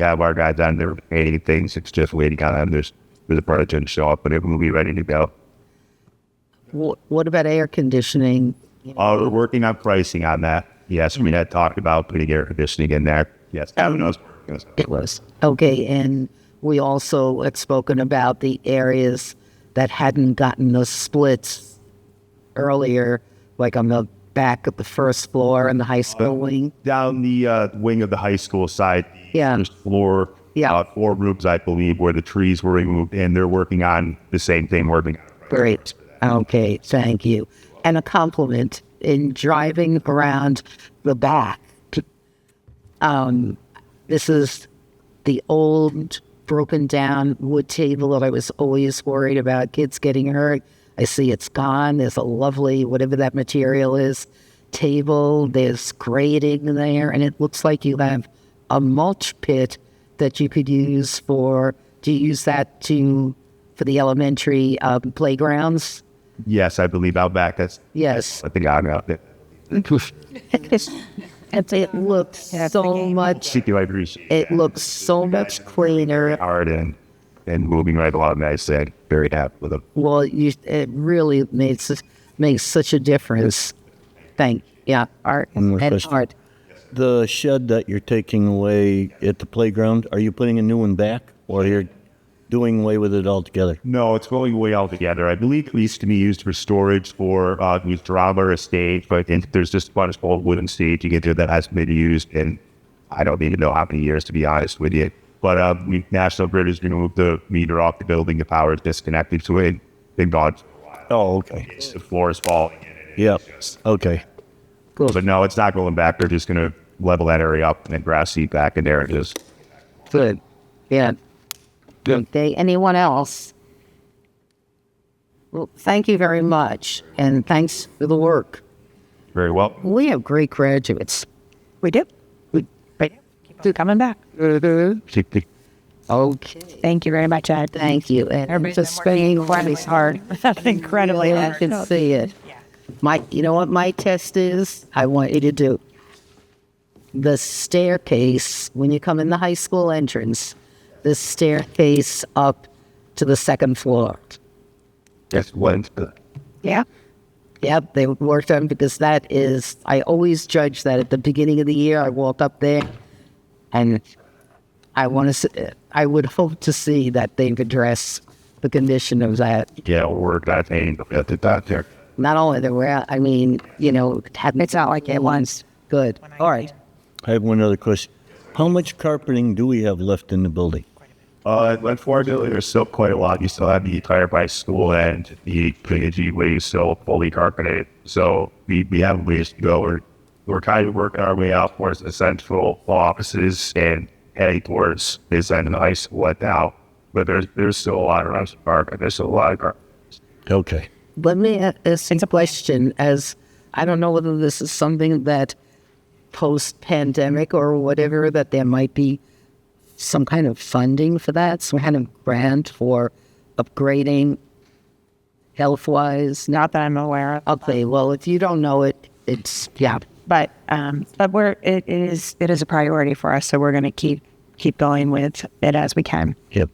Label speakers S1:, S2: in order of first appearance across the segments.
S1: have our guys on there creating things. It's just waiting on this for the product to show up, but it will be ready to go.
S2: What, what about air conditioning?
S1: Uh, we're working on pricing on that. Yes, we had talked about putting air conditioning in there. Yes, I don't know.
S2: It was. Okay, and we also had spoken about the areas that hadn't gotten the splits earlier, like on the back of the first floor in the high school wing.
S1: Down the uh, wing of the high school side, the
S2: Yeah.
S1: first floor,
S2: Yeah.
S1: uh, four rooms, I believe, where the trees were removed, and they're working on the same thing. Working on
S2: Great. Okay, thank you. And a compliment in driving around the back. Um, this is the old broken down wood table that I was always worried about kids getting hurt. I see it's gone. There's a lovely, whatever that material is, table. There's grating there. And it looks like you have a mulch pit that you could use for, do you use that to, for the elementary um, playgrounds?
S1: Yes, I believe out back. That's
S2: Yes.
S1: I think I got it.
S2: And it looks so much,
S1: Thank you. I appreciate
S2: it
S1: that.
S2: looks so much cleaner.
S1: hard and and moving right along. I said very happy with them.
S2: Well, you, it really makes makes such a difference. Thank yeah, art
S3: One more
S2: and
S3: question.
S2: art.
S3: The shed that you're taking away at the playground, are you putting a new one back or you're doing away with it altogether?
S1: No, it's going away altogether. I believe it used to be used for storage for uh, used drama or a stage, but in, there's just a bunch of old wooden stage you get there that hasn't been used in I don't even know how many years to be honest with you. But uh, we, National Grid is going to move the meter off the building. The power is disconnected to it. They've gone.
S3: Oh, okay.
S1: The floor is falling. in it.
S3: Yep. Okay.
S1: But no, it's not going back. They're just going to level that area up and then grass seed back in there and just
S2: Good. Yeah. Okay. Anyone else? Well, thank you very much, and thanks for the work.
S1: very well.
S2: We have great graduates.
S4: We do. We do. Keep coming back.
S2: Okay.
S4: Thank you very much, Ed.
S2: Mm-hmm. Thank you. And
S4: Everybody's
S2: just
S4: been working
S2: spending
S4: incredibly
S2: is hard.
S4: Incredibly
S2: I
S4: hard.
S2: can see it. My, you know what my test is? I want you to do the staircase when you come in the high school entrance. The staircase up to the second floor.
S1: That's what.
S4: Yeah.
S2: Yep, they worked on because that is. I always judge that at the beginning of the year. I walk up there, and I want to. I would hope to see that they've addressed the condition of that
S1: Yeah, we're not paying at the doctor.
S2: not only the where I mean, you know, it hadn't,
S4: It's not like it was.
S2: Good. All right.
S3: I have one other question. How much carpeting do we have left in the building?
S1: Uh, unfortunately, there's still quite a lot. You still have the entire by school and the PNG way is still fully carpeted. So we, we have a ways to go. We're, we're kind of working our way out towards the central offices and heading towards this end of the high school at now. But there's there's still a lot around the park, and there's still a lot of carpet.
S3: Okay.
S2: Let me ask a question as I don't know whether this is something that post pandemic or whatever, that there might be some kind of funding for that, some kind of grant for upgrading health wise.
S4: Not that I'm aware of.
S2: Okay, well, if you don't know it, it's, yeah.
S4: But um, but we're it, it is it is a priority for us. So we're going to keep keep going with it as we can.
S3: Yep.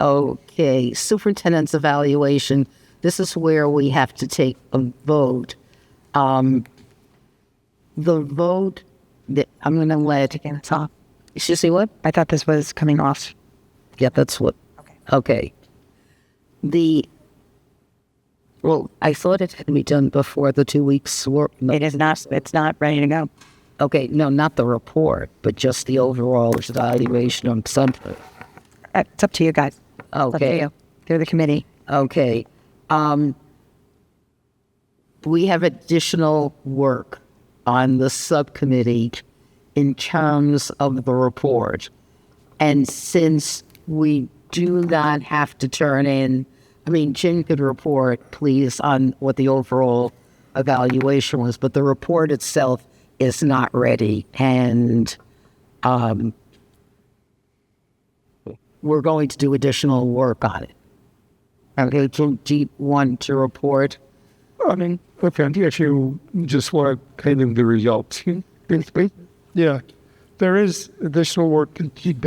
S2: Okay, superintendent's evaluation. This is where we have to take a vote. Um, the vote that I'm going to let,
S4: Taking this off.
S2: you see what?
S4: I thought this was coming off.
S2: Yeah, that's what.
S4: Okay.
S2: Okay. The, well, I thought it had to be done before the two weeks were, no,
S4: It is not. It's not ready to go.
S2: okay, no, not the report, but just the overall evaluation on something.
S4: Uh, It's up to you guys. It's up to
S2: Okay.
S4: you. Through the committee.
S2: Okay. Um, we have additional work on the subcommittee in terms of the report. And since we do not have to turn in, I mean, Jim could report, please, on what the overall evaluation was, but the report itself is not ready. And um, we're going to do additional work on it. Okay, so do you want to report?
S5: I mean, okay, if you just want kind of the results, basically. Yeah. there is additional work to be done.